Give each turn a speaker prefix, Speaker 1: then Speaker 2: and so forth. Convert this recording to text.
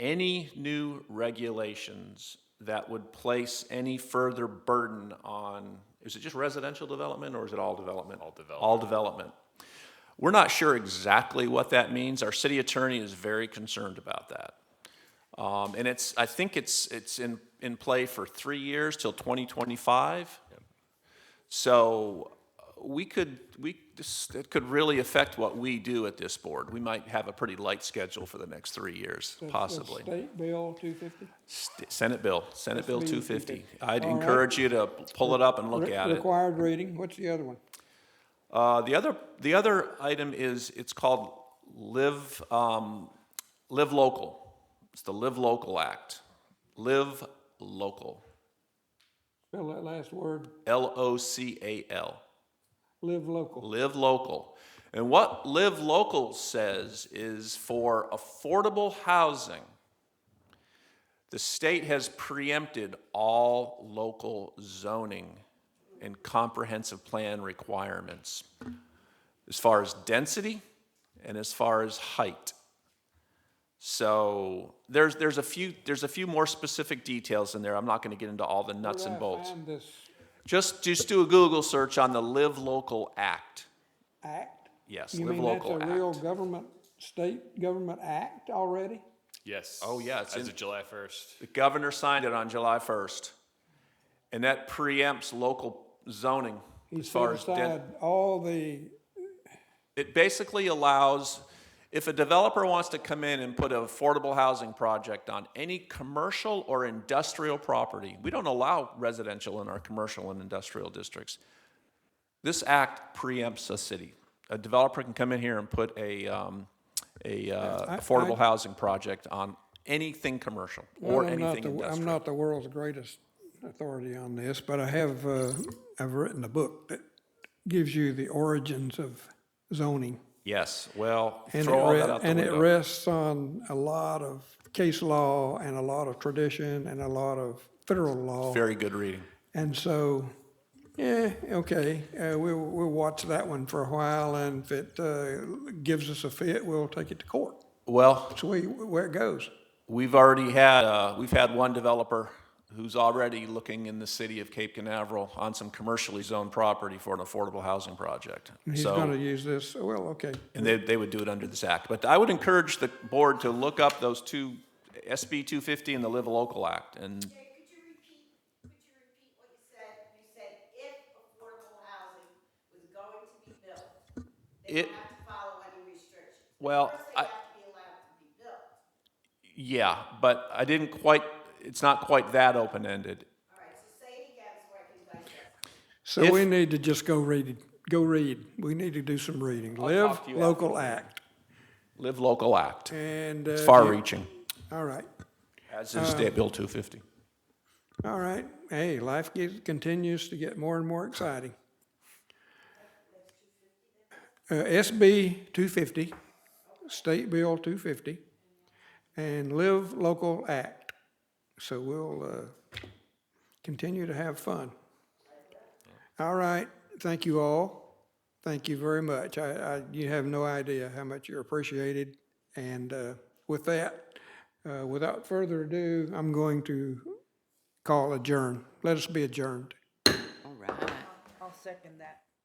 Speaker 1: any new regulations that would place any further burden on, is it just residential development or is it all development? All development. All development. We're not sure exactly what that means. Our city attorney is very concerned about that. Um, and it's, I think it's, it's in, in play for three years till 2025. So uh, we could, we, this, it could really affect what we do at this board. We might have a pretty light schedule for the next three years,
Speaker 2: That's- that's
Speaker 1: possibly.
Speaker 2: State Bill two fifty?
Speaker 1: St- Senate Bill, Senate Bill
Speaker 2: Bill
Speaker 1: 250.
Speaker 2: 250.
Speaker 1: I'd
Speaker 2: All right.
Speaker 1: encourage you to pull it up and look at it.
Speaker 2: Required reading, what's the other one?
Speaker 1: Uh, The other, the other item is, it's called Live, um, Live Local. It's the Live Local Act. Live Local,
Speaker 2: Spell that last word,
Speaker 1: L-O-C-A-L.
Speaker 2: live local.
Speaker 1: Live local. And what Live Local says is for affordable housing, the state has preempted all local zoning and comprehensive plan requirements as far as density and as far as height. So there's, there's a few, there's a few more specific details in there. I'm not going to get into all the nuts
Speaker 2: Where
Speaker 1: and
Speaker 2: I
Speaker 1: bolts.
Speaker 2: find This
Speaker 1: Just, just do a Google search on the Live Local Act.
Speaker 2: act?
Speaker 1: Yes,
Speaker 2: You
Speaker 1: Live
Speaker 2: mean that's a
Speaker 1: Local
Speaker 2: real
Speaker 1: Act.
Speaker 2: government, state government act already?
Speaker 3: Yes.
Speaker 1: Oh, yeah, it's
Speaker 3: As
Speaker 1: in-
Speaker 3: of July first.
Speaker 1: The governor signed it on July 1st, and that preempts local zoning
Speaker 2: He
Speaker 1: as far
Speaker 2: set
Speaker 1: as den-
Speaker 2: aside all the,
Speaker 1: It basically allows, if a developer wants to come in and put an affordable housing project on any commercial or industrial property, we don't allow residential in our commercial and industrial districts. This act preempts a city. A developer can come in here and put a, um, a, uh, affordable housing project on anything commercial or
Speaker 2: Well, I'm not
Speaker 1: anything
Speaker 2: the- I'm
Speaker 1: industrial.
Speaker 2: not the world's greatest authority on this, but I have, uh, I've written a book that gives you the origins of zoning.
Speaker 1: Yes, well,
Speaker 2: And
Speaker 1: throw
Speaker 2: it
Speaker 1: all
Speaker 2: re-
Speaker 1: that out the
Speaker 2: And it
Speaker 1: window.
Speaker 2: rests on a lot of case law and a lot of tradition and a lot of federal law.
Speaker 1: Very good reading.
Speaker 2: And so, yeah, okay, uh, we'll, we'll watch that one for a while, and if it uh, gives us a fit, we'll take it to court.
Speaker 1: Well,
Speaker 2: That's where, where it goes.
Speaker 1: We've already had, uh, we've had one developer who's already looking in the city of Cape Canaveral on some commercially zoned property for an affordable housing project.
Speaker 2: He's gonna
Speaker 1: So,
Speaker 2: use this, well, okay.
Speaker 1: and they, they would do it under this act. But I would encourage the board to look up those two, SB 250 and the Live Local Act. And
Speaker 4: Jay, could you repeat, could you repeat what you said? You said if affordable housing was going to be built, they
Speaker 1: It-
Speaker 4: would have to follow any restrictions. Of
Speaker 1: Well,
Speaker 4: course
Speaker 1: I-
Speaker 4: they have to be allowed to be built.
Speaker 1: yeah, but I didn't quite, it's not quite that open-ended.
Speaker 4: All right, so say it again so I can digest.
Speaker 2: So we need to just go read, it. go read. We need to do some reading. Live
Speaker 1: talk to you
Speaker 2: local act,
Speaker 1: Live Local Act.
Speaker 2: and.
Speaker 1: It's
Speaker 2: uh,
Speaker 1: far-reaching,
Speaker 2: All right,
Speaker 1: as
Speaker 2: Uh,
Speaker 1: is State Bill 250.
Speaker 2: all right. Hey, life gets, continues to get more and more exciting. Uh, SB two fifty, State Bill two fifty, and Live Local Act. So we'll, uh, continue to have fun. All right, thank you all. Thank you very much. I, I, you have no idea how much you're appreciated. And, uh, with that, uh, without further ado, I'm going to call adjourn. Let us be adjourned.
Speaker 4: All right. I'll second that.